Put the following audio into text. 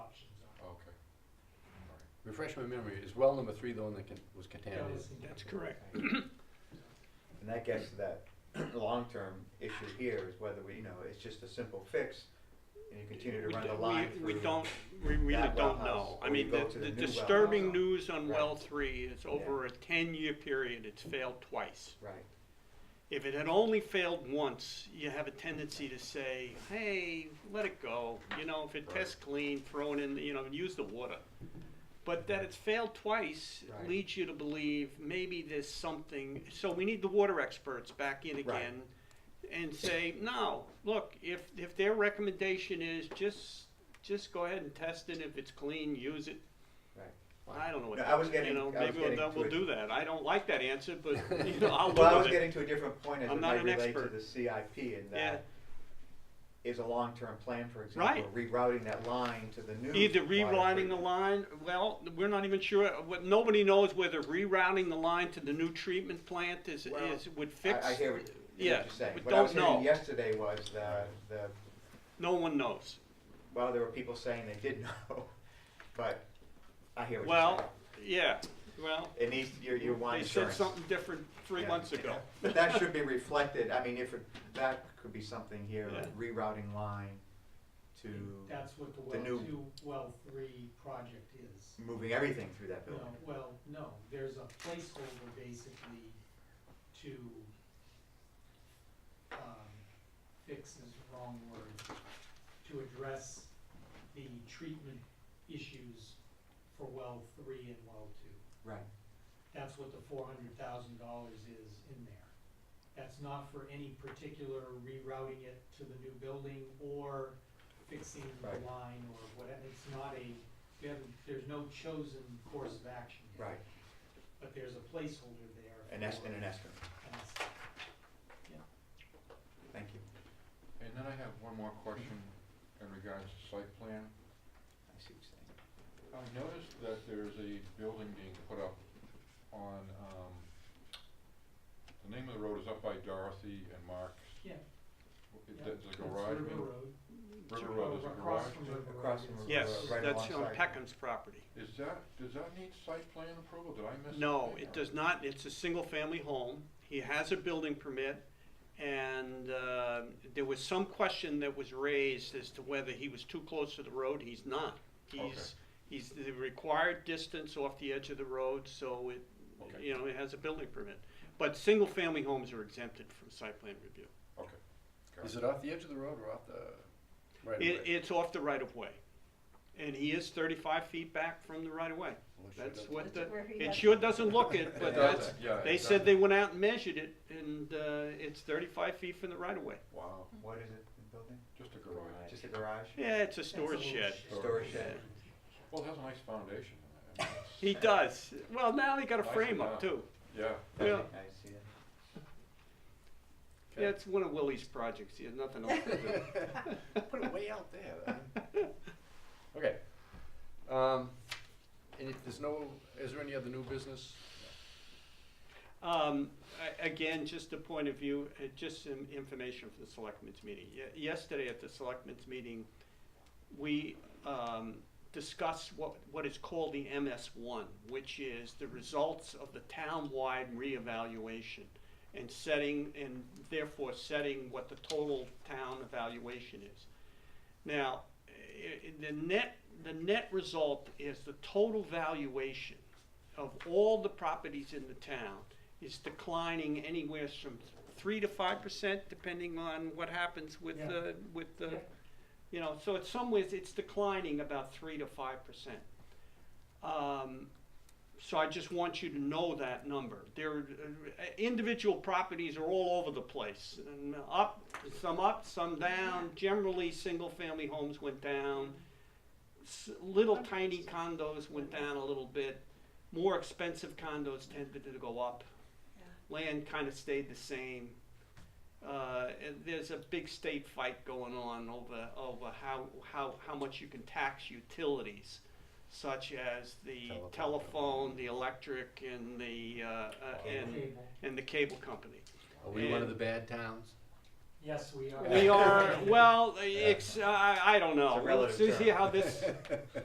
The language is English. refresh my memory, is well number three the one that con- was contaminated? That's correct. And that gets to that long-term issue here is whether we, you know, it's just a simple fix and you continue to run the We- line We through. don't, we really that don't wellhouse, know. or I you mean, go the to the the new well disturbing house. news on Right. well three is over a ten-year period, it's failed twice. Right, If it had only failed once, you have a tendency to say, hey, let it go, you know, if it Right. tests clean, throw it in, you know, use the water. But that it's failed twice Right. leads you to believe maybe there's something, so we need the water experts back in Right. again and say, no, look, if, if their recommendation is just, just go ahead and test it, if it's clean, use it, right. I don't know what, No, I that- was getting- you know, I was maybe we'll, getting do- to we'll it. do that, I don't like that answer, but, you know, I'll Well, I was live with it. getting to a different point as I'm it not might an relate to expert. the CIP and Yeah. that is a long-term plan, for example, Right. rerouting that line to the new. Either water rerouting the treatment. line, well, we're not even sure, what- nobody knows whether rerouting the line to the new treatment plant is, Well, is, would fix. I, I hear what yeah, you're saying. we What I was don't hearing know. yesterday was the, the, No one knows. well, there were people saying they did know, but I hear what you're saying. Well, yeah, well, It needs, your, your one they said insurance. something different three Yeah. months ago. But that should be reflected, I mean, if, it- that could be something here, Yeah. rerouting line to That's what the the well new- two, well three project is. moving everything through that No, building. well, no, there's a placeholder basically to, um, fix is the wrong word, to address the treatment issues for well three and well two. Right, That's what the four hundred thousand dollars is in there. That's not for any particular rerouting it to the new building or fixing the Right. line or whatever. It's not a, we haven't, there's no chosen course of action yet. right, But there's a placeholder there. an es, for- and an estimate, an estimate. thank you. And then I have one more question in regards to site plan. I see what you're I noticed that there's a building being put up on, um, the name of the road is up by Dorothy and Mark. Yeah. Yeah. There's a It's garage. River in- Road, River Road, there's a across garage. from there. River Road. Across from yes. River Yes, Road. Right that's on alongside. Peckham's property. Is that, does that need site plan approval? Did I miss? No, something, it or- does not, it's a single-family home, he has a building permit, and, uh, there was some question that was raised as to whether he was too close to the road, he's not. He's, he's the required distance off the edge of the road, so it, Okay. you know, it has a building permit. But single-family homes are exempted from site plan review. Okay. Got Is it off the edge of the road or off the right of It, way? it's off the right-of-way, and he is thirty-five feet back from the Well, right-of-way, it sure that's does. what the, Where he it has- sure doesn't look it, but It that's, doesn't, yeah, They it said they doesn't. went out and measured it, and uh, it's 35 feet from the right of way. Wow, What is it, the building? just a garage. Just a garage? Yeah, it's a That's a storage little shed. Storage shed. Well, it has a nice foundation. I mean, it's- He does. Well, now they got a Nice frame up enough. too. Yeah. Yeah. I see that. Yeah, it's one of Willie's projects. He has nothing else to do. Put it way out there. man. Okay. Um, and if there's no, is there any other new business? Um, I- again, just a point of view, uh, just some information for the selectmen's meeting. Ye- Yesterday at the selectmen's meeting, we um, discussed what, what is called the MS1, which is the results of the town-wide reevaluation and setting, and therefore setting what the total town evaluation is. Now, i- i- the net, the net result is the total valuation of all the properties in the town is declining anywhere from three to five percent, depending on what happens with Yeah. the, with the, Yeah. you know, so in some ways, it's declining about three to five percent. Um, so I just want you to know that number. There, uh, individual properties are all over the place, and up, some up, some down. Generally, single-family homes went down. S- Little tiny condos went down a little bit. More expensive condos tended to go up. Land kind of stayed the same. Uh, and there's a big state fight going on over, over how, how, how much you can tax utilities, such as the Telephone. telephone, the electric, and the, uh, uh, and, Cable. and the cable company. Are we one of And- the bad towns? Yes, we are. We are, well, it's, uh, I, I don't know. It's a relative Let's see term. how this,